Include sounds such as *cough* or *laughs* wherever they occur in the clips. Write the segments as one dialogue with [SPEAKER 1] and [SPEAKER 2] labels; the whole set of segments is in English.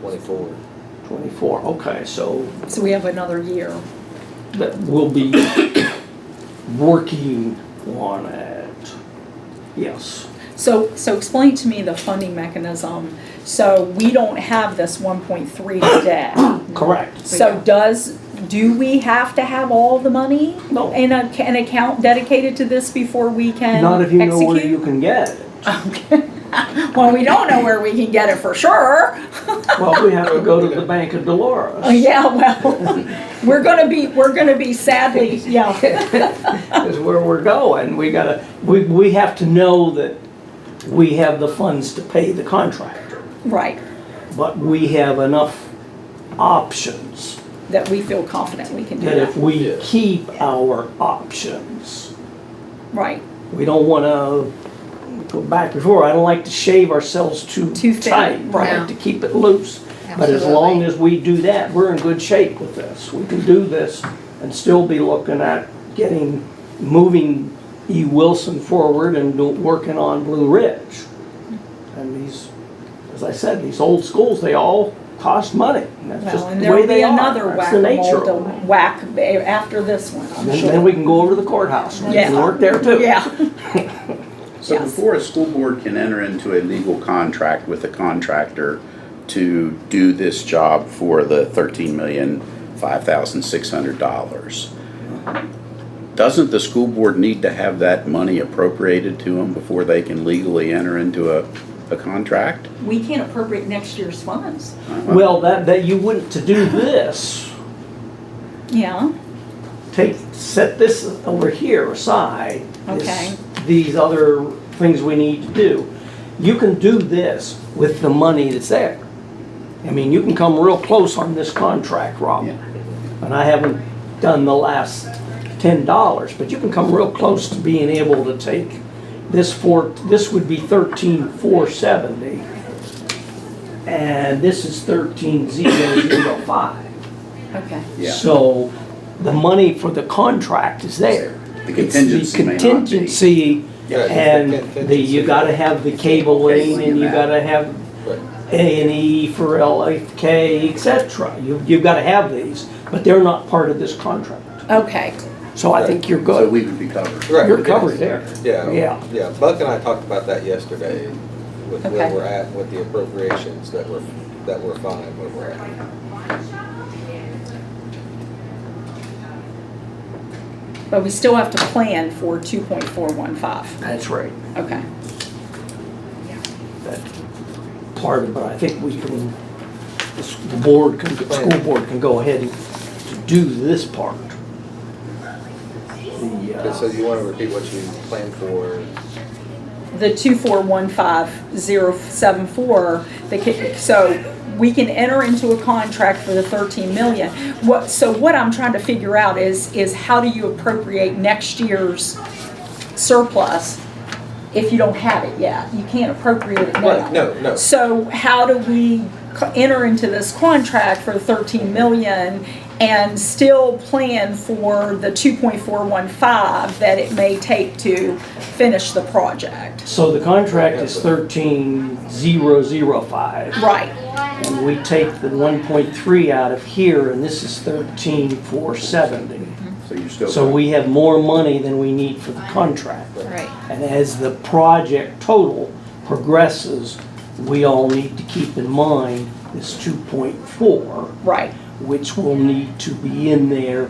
[SPEAKER 1] Twenty-four.
[SPEAKER 2] Twenty-four, okay, so
[SPEAKER 3] So we have another year.
[SPEAKER 2] that we'll be working on it. Yes,
[SPEAKER 3] So, so explain to me the funding mechanism. So we don't have this one point
[SPEAKER 2] *coughs*
[SPEAKER 3] three today.
[SPEAKER 2] correct.
[SPEAKER 3] So does, do we have to have all the money?
[SPEAKER 2] No.
[SPEAKER 3] In a, an account dedicated to this before we can execute?
[SPEAKER 2] Not if you know where you can get it.
[SPEAKER 3] Okay. *laughs* Well, we don't know where we can get it
[SPEAKER 2] *laughs*
[SPEAKER 3] for sure.
[SPEAKER 2] Well, we have to go to the Bank of Dolores.
[SPEAKER 3] Oh, yeah, well, *laughs* we're gonna be, we're gonna be sadly, yeah.
[SPEAKER 2] *laughs* Is where we're going. We gotta, we, we have to know that we have the funds to pay the contractor.
[SPEAKER 3] Right,
[SPEAKER 2] But we have enough options
[SPEAKER 3] that we feel confident we can do
[SPEAKER 2] that if
[SPEAKER 3] that.
[SPEAKER 2] we
[SPEAKER 1] Yeah.
[SPEAKER 2] keep our options,
[SPEAKER 3] Right,
[SPEAKER 2] we don't wanna go back before. I don't like to shave ourselves too
[SPEAKER 3] Too thin,
[SPEAKER 2] tight,
[SPEAKER 3] yeah.
[SPEAKER 2] right, to keep it loose. But as long as we do that, we're in good shape with this. We can do this and still be looking at getting, moving E. Wilson forward and do- working on Blue Ridge. And these, as I said, these old schools, they all cost money. and That's
[SPEAKER 3] well,
[SPEAKER 2] just
[SPEAKER 3] and
[SPEAKER 2] the
[SPEAKER 3] there'll
[SPEAKER 2] way
[SPEAKER 3] be
[SPEAKER 2] they are.
[SPEAKER 3] another
[SPEAKER 2] That's the nature
[SPEAKER 3] whack-a-mole to
[SPEAKER 2] of it.
[SPEAKER 3] whack after this one, I'm
[SPEAKER 2] And
[SPEAKER 3] sure.
[SPEAKER 2] then we can go over to the courthouse and we can
[SPEAKER 3] Yeah.
[SPEAKER 2] work there too.
[SPEAKER 3] *laughs* Yeah,
[SPEAKER 4] So
[SPEAKER 3] Yes.
[SPEAKER 4] before a school board can enter into a legal contract with a contractor to do this job for the thirteen million, five thousand, six hundred dollars, doesn't the school board need to have that money appropriated to them before they can legally enter into a, a contract?
[SPEAKER 3] we can't appropriate next year's funds.
[SPEAKER 2] Well, that, that you wouldn't, to do this,
[SPEAKER 3] Yeah,
[SPEAKER 2] take, set this over here aside. this-
[SPEAKER 3] Okay.
[SPEAKER 2] These other things we need to do. You can do this with the money that's there. I mean, you can come real close on this contract, Rob.
[SPEAKER 4] Yeah.
[SPEAKER 2] And I haven't done the last ten dollars, but you can come real close to being able to take this four, this would be thirteen four seventy. And this is thirteen zero zero five.
[SPEAKER 3] okay.
[SPEAKER 4] Yeah.
[SPEAKER 2] So the money for the contract is there.
[SPEAKER 4] The
[SPEAKER 2] It's
[SPEAKER 4] contingency may not be.
[SPEAKER 2] contingency
[SPEAKER 1] Yeah, it's the
[SPEAKER 2] and the, you
[SPEAKER 1] contingency.
[SPEAKER 2] gotta have the cable lane and you
[SPEAKER 4] Cabling and
[SPEAKER 2] gotta have
[SPEAKER 1] Right.
[SPEAKER 2] A and E for LFK, et cetera. You, you've gotta have these, but they're not part of this contract.
[SPEAKER 3] Okay,
[SPEAKER 2] So I think you're
[SPEAKER 4] So
[SPEAKER 2] good.
[SPEAKER 4] we would be covered.
[SPEAKER 1] Right,
[SPEAKER 2] You're
[SPEAKER 1] yes.
[SPEAKER 2] covered there.
[SPEAKER 1] Yeah.
[SPEAKER 2] Yeah.
[SPEAKER 1] Yeah, Buck and I talked about that yesterday, with where
[SPEAKER 3] Okay.
[SPEAKER 1] we're at, with the appropriations that we're, that we're fine, where we're at.
[SPEAKER 3] but we still have to plan for two point four one five,
[SPEAKER 2] That's right.
[SPEAKER 3] okay.
[SPEAKER 2] That part of, it. but I think we can, the s- the board can, the school board can go ahead and do this part. The, uh,
[SPEAKER 1] Okay, So you wanna repeat what you planned for?
[SPEAKER 3] the two four one five zero seven four, the, ca- so we can enter into a contract for the thirteen million. What, so what I'm trying to figure out is, is how do you appropriate next year's surplus if you don't have it yet? You can't appropriate it now.
[SPEAKER 1] Right, no, no.
[SPEAKER 3] So how do we co- enter into this contract for thirteen million and still plan for the two point four one five that it may take to finish the project?
[SPEAKER 2] So the contract is thirteen zero zero five,
[SPEAKER 3] Right,
[SPEAKER 2] and we take the one point three out of here, and this is thirteen four seventy.
[SPEAKER 4] So you're still.
[SPEAKER 2] So we have more money than we need for the contract.
[SPEAKER 3] right,
[SPEAKER 2] And as the project total progresses, we all need to keep in mind this two point four,
[SPEAKER 3] right,
[SPEAKER 2] which will need to be in there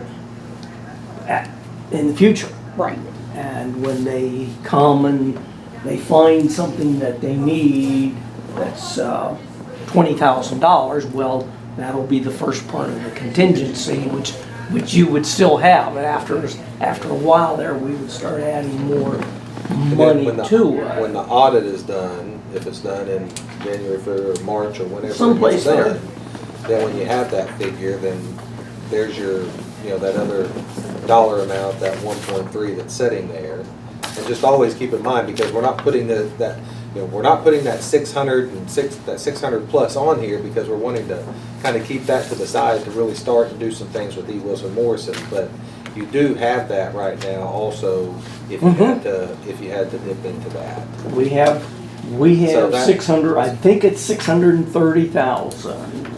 [SPEAKER 2] at, in the future.
[SPEAKER 3] right,
[SPEAKER 2] And when they come and they find something that they need, that's uh, $20,000, well, that'll be the first part of the contingency, which, which you would still have. And after, after a while there, we would start adding more
[SPEAKER 1] and then
[SPEAKER 2] money uh,
[SPEAKER 1] when the-
[SPEAKER 2] to
[SPEAKER 1] When
[SPEAKER 2] it.
[SPEAKER 1] the audit is done, if it's done in January, February, March, or whenever
[SPEAKER 2] Someplace
[SPEAKER 1] it's
[SPEAKER 2] there.
[SPEAKER 1] done, then when you have that figure, then there's your, you know, that other dollar amount, that one point three that's sitting there. And just always keep in mind, because we're not putting the, that, you know, we're not putting that six hundred and six, that six hundred plus on here because we're wanting to kind of keep that to the side to really start and do some things with E. Wilson Morrison, but you do have that right now also if you had to, if you had to dip into that.
[SPEAKER 2] We have We
[SPEAKER 1] So
[SPEAKER 2] have
[SPEAKER 1] that-
[SPEAKER 2] six hundred, I think it's six hundred and thirty thousand.